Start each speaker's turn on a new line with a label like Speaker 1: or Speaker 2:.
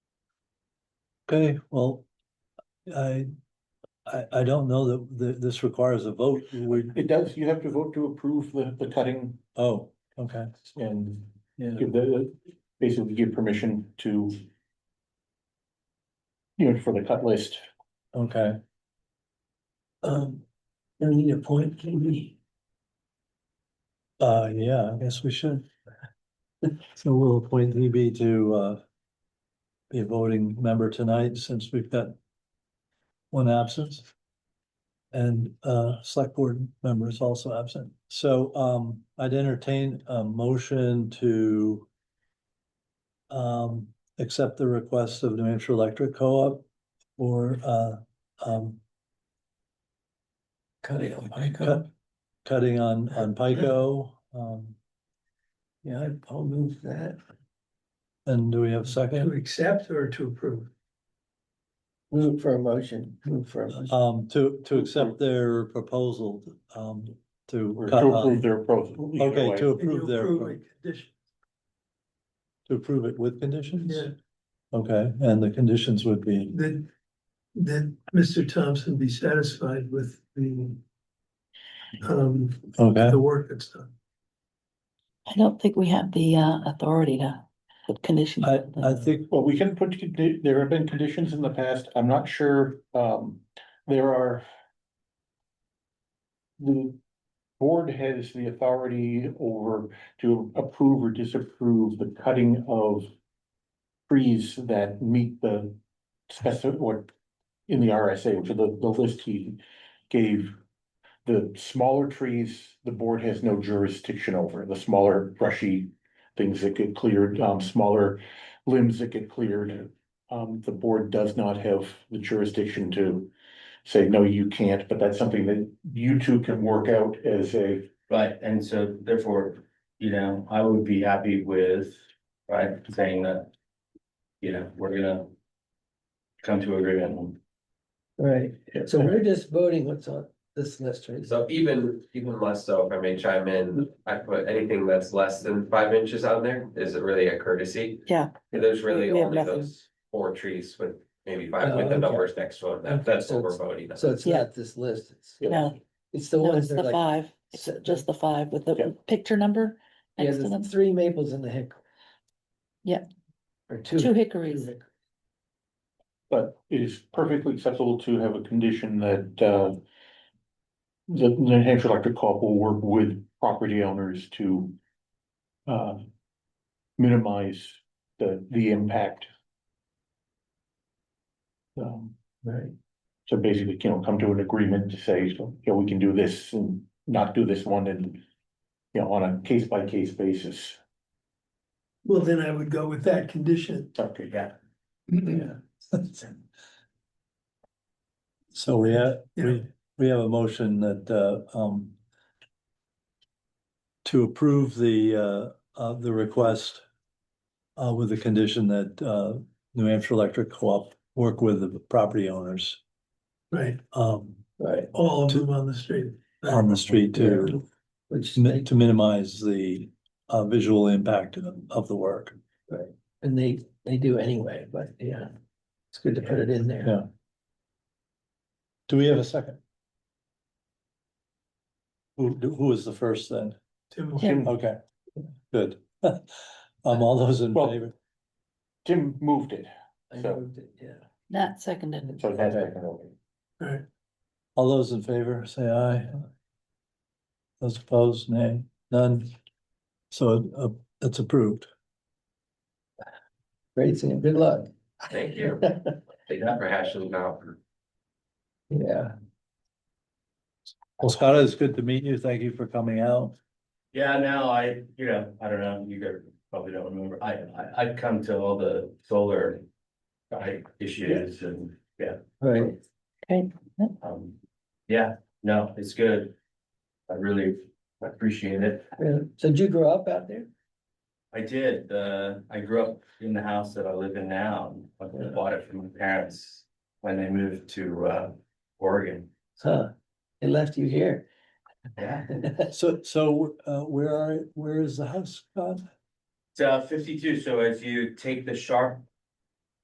Speaker 1: Okay, well, I, I, I don't know that, th this requires a vote. We,
Speaker 2: It does, you have to vote to approve the, the cutting
Speaker 1: oh, okay,
Speaker 2: and
Speaker 1: yeah,
Speaker 2: give the, basically give permission to. You know, for the cut list,
Speaker 1: okay.
Speaker 3: Um, do we need a point, can we?
Speaker 1: Uh, yeah, I guess we should. So we'll appoint EB to, uh, be a voting member tonight since we've got one absence. And, uh, select board member is also absent. So, um, I'd entertain a motion to um, accept the request of New Hampshire Electric Co-op for, uh, um,
Speaker 3: Cut it, I
Speaker 1: cut, cutting on, on Pico. Um,
Speaker 3: yeah, I'll move that,
Speaker 1: and do we have a
Speaker 4: To
Speaker 1: second?
Speaker 4: accept or to approve?
Speaker 3: move for a motion, move for a motion,
Speaker 1: Um, to, to accept their proposal, um, to
Speaker 2: or
Speaker 1: cut
Speaker 2: to approve
Speaker 1: on,
Speaker 2: their proposal. either
Speaker 1: okay,
Speaker 2: way.
Speaker 1: to
Speaker 4: And you
Speaker 1: approve their,
Speaker 4: approve
Speaker 1: pro-
Speaker 4: it, condition,
Speaker 1: to approve it with conditions?
Speaker 4: yeah,
Speaker 1: Okay, and the conditions would be,
Speaker 4: that, that Mr. Thompson be satisfied with the um,
Speaker 1: okay,
Speaker 4: the work that's done.
Speaker 5: I don't think we have the uh authority to put conditions.
Speaker 1: I,
Speaker 5: on
Speaker 1: I
Speaker 5: the-
Speaker 1: think,
Speaker 2: Well, we can put, condi- there have been conditions in the past, I'm not sure, um, there are. The board has the authority over to approve or disapprove the cutting of. Trees that meet the specific, what, in the RSA, which is the, the list he gave. The smaller trees, the board has no jurisdiction over, the smaller brushy things that get cleared, um, smaller limbs that get cleared. Um, the board does not have the jurisdiction to say, no, you can't, but that's something that you two can work out as a.
Speaker 6: Right, and so therefore, you know, I would be happy with, right, saying that. You know, we're gonna. Come to agreement on
Speaker 3: right, so we're just voting what's on this list, right?
Speaker 7: So even, even less so, if I may chime in, I put anything that's less than five inches on there, is it really a courtesy?
Speaker 5: Yeah.
Speaker 7: And There's really
Speaker 5: We have
Speaker 7: only
Speaker 5: nothing.
Speaker 7: those four trees with maybe five, with
Speaker 3: Oh, okay.
Speaker 7: the numbers next to them, that, that's what we're voting on.
Speaker 3: So it's
Speaker 5: Yeah.
Speaker 3: not this list, it's,
Speaker 5: No,
Speaker 3: it's the
Speaker 5: no,
Speaker 3: ones
Speaker 5: it's
Speaker 3: that
Speaker 5: the
Speaker 3: are like,
Speaker 5: five, it's
Speaker 3: set-
Speaker 5: just the five with
Speaker 2: Yeah.
Speaker 5: the picture number
Speaker 3: yeah,
Speaker 5: next to them,
Speaker 3: there's three maples in the hick.
Speaker 5: Yeah.
Speaker 3: Or two.
Speaker 5: two
Speaker 3: two
Speaker 5: hickories.
Speaker 3: hick-
Speaker 2: But it is perfectly acceptable to have a condition that, uh. The New Hampshire Electric Co-op will work with property owners to. Uh. Minimize the, the impact. Um,
Speaker 3: Right,
Speaker 2: So basically, you know, come to an agreement to say, you know, we can do this and not do this one and. You know, on a case by case basis.
Speaker 4: Well, then I would go with that condition.
Speaker 2: Okay, yeah.
Speaker 1: so we have,
Speaker 4: Yeah.
Speaker 1: we, we have a motion that, uh, um, to approve the, uh, of the request uh, with the condition that, uh, New Hampshire Electric Co-op work with the property owners,
Speaker 4: Right,
Speaker 1: um,
Speaker 3: right,
Speaker 4: all of them on the street.
Speaker 1: on the street to
Speaker 3: which,
Speaker 1: mi-
Speaker 3: they-
Speaker 1: to minimize the uh visual impact of of the work.
Speaker 3: and they, they do anyway, but yeah, it's good to put it in there.
Speaker 1: Yeah. Do we have a second? Who do- who was the first then?
Speaker 4: Tim,
Speaker 5: Tim.
Speaker 1: Okay, good. Um, all those in
Speaker 2: Well-
Speaker 1: favor?
Speaker 2: Tim moved it,
Speaker 3: I
Speaker 2: So-
Speaker 3: moved it, yeah.
Speaker 5: Not seconded,
Speaker 2: so that's taken over.
Speaker 4: Right,
Speaker 1: All those in favor, say aye. Those opposed, nay, none. So uh, it's approved.
Speaker 3: Great, Sam, good luck.
Speaker 7: Thank you, thank you for hashing it out.
Speaker 3: Yeah,
Speaker 1: Well, Scott, it's good to meet you. Thank you for coming out.
Speaker 6: Yeah, no, I, you know, I don't know, you guys probably don't remember, I, I, I've come to all the solar. Right, issues and,
Speaker 3: right,
Speaker 5: okay,
Speaker 6: um, yeah, no, it's good. I really appreciate it.
Speaker 3: yeah. So did you grow up out there?
Speaker 6: I did, uh, I grew up in the house that I live in now, I bought it from my parents when they moved to, uh, Oregon.
Speaker 3: Huh, they left you here.
Speaker 6: Yeah.
Speaker 1: So so uh where are, where is the house, Scott?
Speaker 6: It's, uh, fifty-two, so if you take the sharp